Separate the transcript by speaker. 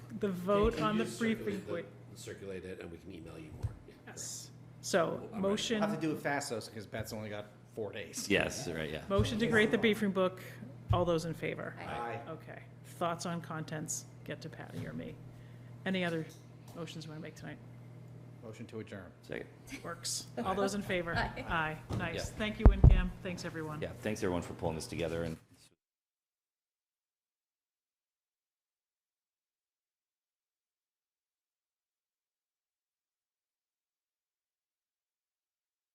Speaker 1: the vote
Speaker 2: Can you
Speaker 1: on the
Speaker 2: just
Speaker 1: free
Speaker 2: circulate the-
Speaker 1: frequent,
Speaker 2: Circulate it, and we can email you more. Yeah,
Speaker 1: yes. So, motion.
Speaker 3: I'll have to do it fast though, because Beth's only got four days.
Speaker 4: Yes, right, yeah.
Speaker 1: Motion to create the briefing book, all those in favor?
Speaker 3: Aye.
Speaker 1: Okay. Thoughts on contents, get to Patty or me. Any other motions you want to make tonight?
Speaker 3: Motion to adjourn.
Speaker 4: Second.
Speaker 1: Works. All those in favor? Aye. Nice.
Speaker 4: Yeah.
Speaker 1: Thank you, WinCam. Thanks, everyone.
Speaker 4: Yeah, thanks everyone for pulling this together and.